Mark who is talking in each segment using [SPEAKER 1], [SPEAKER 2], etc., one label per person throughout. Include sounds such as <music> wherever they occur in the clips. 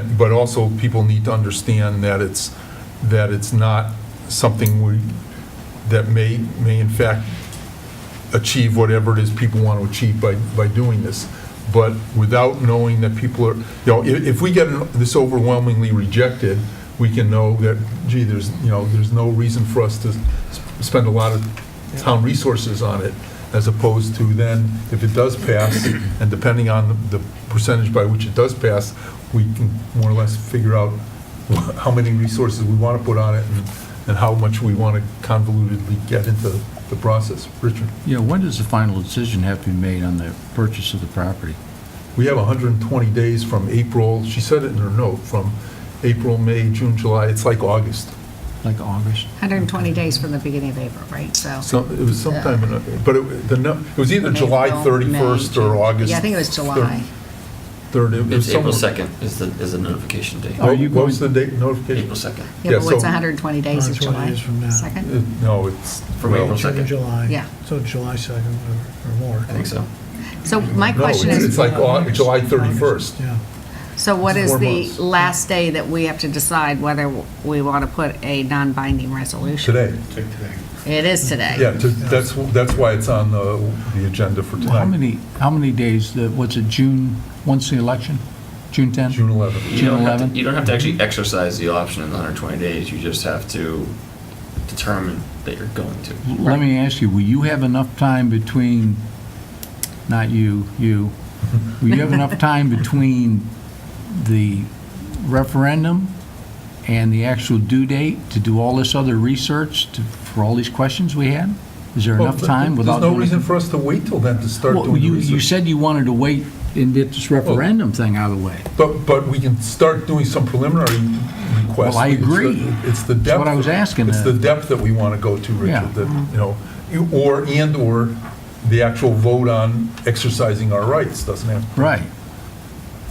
[SPEAKER 1] But also, people need to understand that it's, that it's not something we, that may, may in fact achieve whatever it is people want to achieve by, by doing this. But without knowing that people are, you know, if, if we get this overwhelmingly rejected, we can know that, gee, there's, you know, there's no reason for us to s- spend a lot of town resources on it, as opposed to then, if it does pass, and depending on the percentage by which it does pass, we can more or less figure out how many resources we want to put on it and, and how much we want to convolutedly get into the process. Richard?
[SPEAKER 2] Yeah, when does the final decision have to be made on the purchase of the property?
[SPEAKER 1] We have 120 days from April, she said it in her note, from April, May, June, July, it's like August.
[SPEAKER 2] Like August?
[SPEAKER 3] 120 days from the beginning of April, right? So.
[SPEAKER 1] So it was sometime in, but it, the, no- it was either July
[SPEAKER 3] April,
[SPEAKER 1] 31st
[SPEAKER 3] May,
[SPEAKER 1] or
[SPEAKER 3] June.
[SPEAKER 1] August.
[SPEAKER 3] Yeah, I think it was July.
[SPEAKER 1] 3rd. It was
[SPEAKER 4] It's April
[SPEAKER 1] somewhere-
[SPEAKER 4] 2nd is the, is the notification date.
[SPEAKER 2] Are
[SPEAKER 1] What
[SPEAKER 2] you
[SPEAKER 1] what was the
[SPEAKER 2] going-
[SPEAKER 1] date notification?
[SPEAKER 4] April 2nd,
[SPEAKER 3] Yeah,
[SPEAKER 1] yeah,
[SPEAKER 3] but what's
[SPEAKER 1] so-
[SPEAKER 3] 120 days is
[SPEAKER 5] 120
[SPEAKER 3] July
[SPEAKER 5] days from now.
[SPEAKER 3] 2nd?
[SPEAKER 1] Uh, No, it's.
[SPEAKER 4] From
[SPEAKER 1] well,
[SPEAKER 4] April
[SPEAKER 5] June and
[SPEAKER 4] 2nd.
[SPEAKER 5] July.
[SPEAKER 3] Yeah.
[SPEAKER 5] So July 2nd or- or more.
[SPEAKER 4] I think so.
[SPEAKER 3] So my
[SPEAKER 1] No,
[SPEAKER 3] question
[SPEAKER 1] it's-
[SPEAKER 3] is,
[SPEAKER 1] it's like Au- July 31st.
[SPEAKER 5] August, Yeah.
[SPEAKER 3] so what is
[SPEAKER 1] four
[SPEAKER 3] the
[SPEAKER 1] months.
[SPEAKER 3] last day that we have to decide whether we want to put a non-binding resolution?
[SPEAKER 1] Today.
[SPEAKER 3] It is today.
[SPEAKER 1] Yeah, to- that's, that's why it's on the, the agenda for
[SPEAKER 2] How
[SPEAKER 1] tonight,
[SPEAKER 2] many, how many days, the- was it June, once the election? June 10?
[SPEAKER 1] June 11th.
[SPEAKER 4] You don't have to,
[SPEAKER 2] 11?
[SPEAKER 4] you don't have to actually exercise the option in the 120 days, you just have to determine that you're going to.
[SPEAKER 2] Let me ask you, will you have enough time between, not you, you, will you
[SPEAKER 1] <laughs>
[SPEAKER 2] have enough time between the referendum and the actual due date to do all this other research to- for all these questions we had? Is there enough time without?
[SPEAKER 1] There's no
[SPEAKER 2] doing-
[SPEAKER 1] reason for us to wait till then to start
[SPEAKER 2] Well,
[SPEAKER 1] doing the
[SPEAKER 2] you- You
[SPEAKER 1] research.
[SPEAKER 2] said you wanted to wait and get this referendum thing out of the way.
[SPEAKER 1] But, but we can start doing some preliminary requests.
[SPEAKER 2] Well, I
[SPEAKER 1] It's the-
[SPEAKER 2] agree.
[SPEAKER 1] It's the depth.
[SPEAKER 2] That's what I was asking,
[SPEAKER 1] It's
[SPEAKER 2] uh,
[SPEAKER 1] the depth that we want to go to,
[SPEAKER 2] Yeah.
[SPEAKER 1] Richard, that, you know, you- or, and/or the actual vote on exercising our rights, doesn't have.
[SPEAKER 2] Right.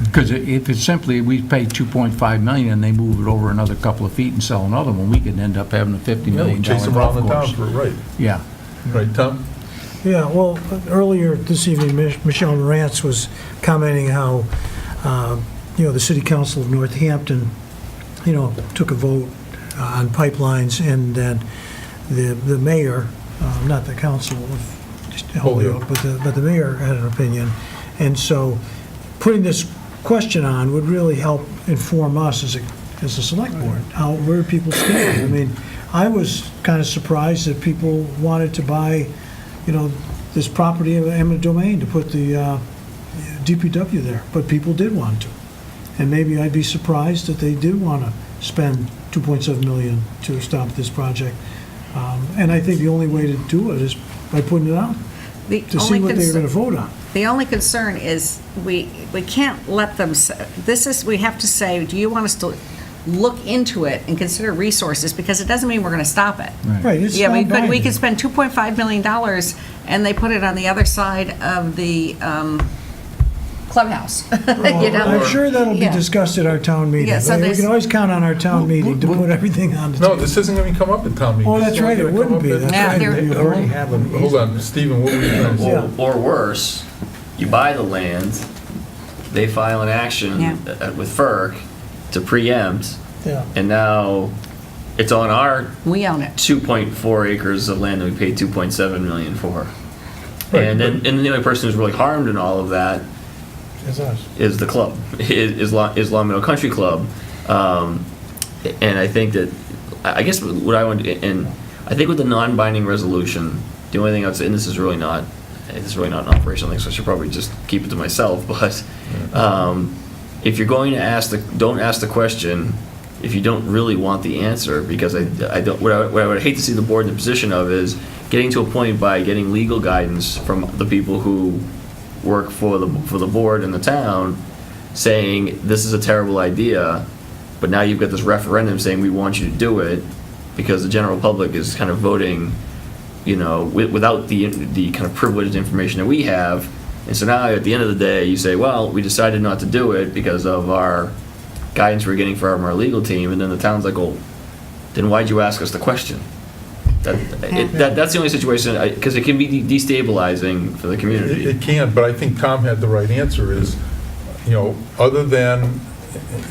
[SPEAKER 2] Because if it's simply, we pay 2.5 million and they move it over another couple of feet and sell another one, we could end up having a 50 million
[SPEAKER 1] Chase
[SPEAKER 2] dollar
[SPEAKER 1] them around
[SPEAKER 2] golf
[SPEAKER 1] the town
[SPEAKER 2] course.
[SPEAKER 1] for, right,
[SPEAKER 2] Yeah.
[SPEAKER 1] right, Tom?
[SPEAKER 5] Yeah, well, earlier this evening, Mich- Michelle Morantz was commenting how, uh, you know, the city council of Northampton, you know, took a vote uh, on pipelines, and then the the mayor, uh, not the council of Holyoke, but the but the mayor had an opinion. And so putting this question on would really help inform us as a, as a select board, how, where people stand. I mean, I was kind of surprised that people wanted to buy, you know, this property in eminent domain to put the uh, DPW there, but people did want to. And maybe I'd be surprised that they did want to spend 2.7 million to stop this project. Um, And I think the only way to do it is by putting it out,
[SPEAKER 3] The
[SPEAKER 5] to
[SPEAKER 3] only
[SPEAKER 5] see what they're
[SPEAKER 3] concern-
[SPEAKER 5] going to vote on.
[SPEAKER 3] The only concern is, we, we can't let them, s- this is, we have to say, do you want us to look into it and consider resources? Because it doesn't mean we're going to stop it.
[SPEAKER 5] Right, it's
[SPEAKER 3] Yeah, we- but we
[SPEAKER 5] non-binding.
[SPEAKER 3] could spend $2.5 million, and they put it on the other side of the um, clubhouse, <laughs> you
[SPEAKER 5] Well,
[SPEAKER 3] know?
[SPEAKER 5] I'm sure that'll be
[SPEAKER 3] Yeah.
[SPEAKER 5] discussed at our town meeting.
[SPEAKER 3] Yeah, so
[SPEAKER 5] We
[SPEAKER 3] there's-
[SPEAKER 5] can always count on our town meeting to
[SPEAKER 2] well-
[SPEAKER 5] put everything on the
[SPEAKER 1] No,
[SPEAKER 5] table.
[SPEAKER 1] this isn't going to come up at town meeting.
[SPEAKER 5] Oh,
[SPEAKER 1] This
[SPEAKER 5] that's
[SPEAKER 1] is
[SPEAKER 5] right, it
[SPEAKER 1] gonna come
[SPEAKER 5] wouldn't
[SPEAKER 1] up
[SPEAKER 5] be.
[SPEAKER 1] at-
[SPEAKER 5] That's
[SPEAKER 3] Yeah,
[SPEAKER 5] right.
[SPEAKER 3] there-
[SPEAKER 5] You already have an
[SPEAKER 1] Hold on, Stephen, what were you going to say?
[SPEAKER 4] Or, or worse, you buy the land, they file an action
[SPEAKER 3] Yeah.
[SPEAKER 4] uh, with FERC to preempt,
[SPEAKER 5] Yeah.
[SPEAKER 4] and now it's on our
[SPEAKER 3] We own it.
[SPEAKER 4] 2.4 acres of land that we paid 2.7 million for.
[SPEAKER 1] Right,
[SPEAKER 4] And then, and the only person who's really harmed in all of that
[SPEAKER 5] It's us.
[SPEAKER 4] is the club, is is Long, is Long Meadow Country Club, um, and I think that, I I guess what I would, and I think with the non-binding resolution, the only thing I'd say, and this is really not, this is really not an operational thing, so I should probably just keep it to myself, <laughs> but, um, if you're going to ask the, don't ask the question if you don't really want the answer, because I, I don't, what I, what I would hate to see the board in the position of is getting to a point by getting legal guidance from the people who work for the, for the board and the town, saying, this is a terrible idea, but now you've got this referendum saying, we want you to do it, because the general public is kind of voting, you know, wi- without the, the kind of privileged information that we have. And so now, at the end of the day, you say, well, we decided not to do it because of our guidance we're getting from our legal team, and then the town's like, well, then why'd you ask us the question? That, it, that, that's the only situation, because it can be de- destabilizing for the community.
[SPEAKER 1] It it can, but I think Tom had the right answer, is, you know, other than,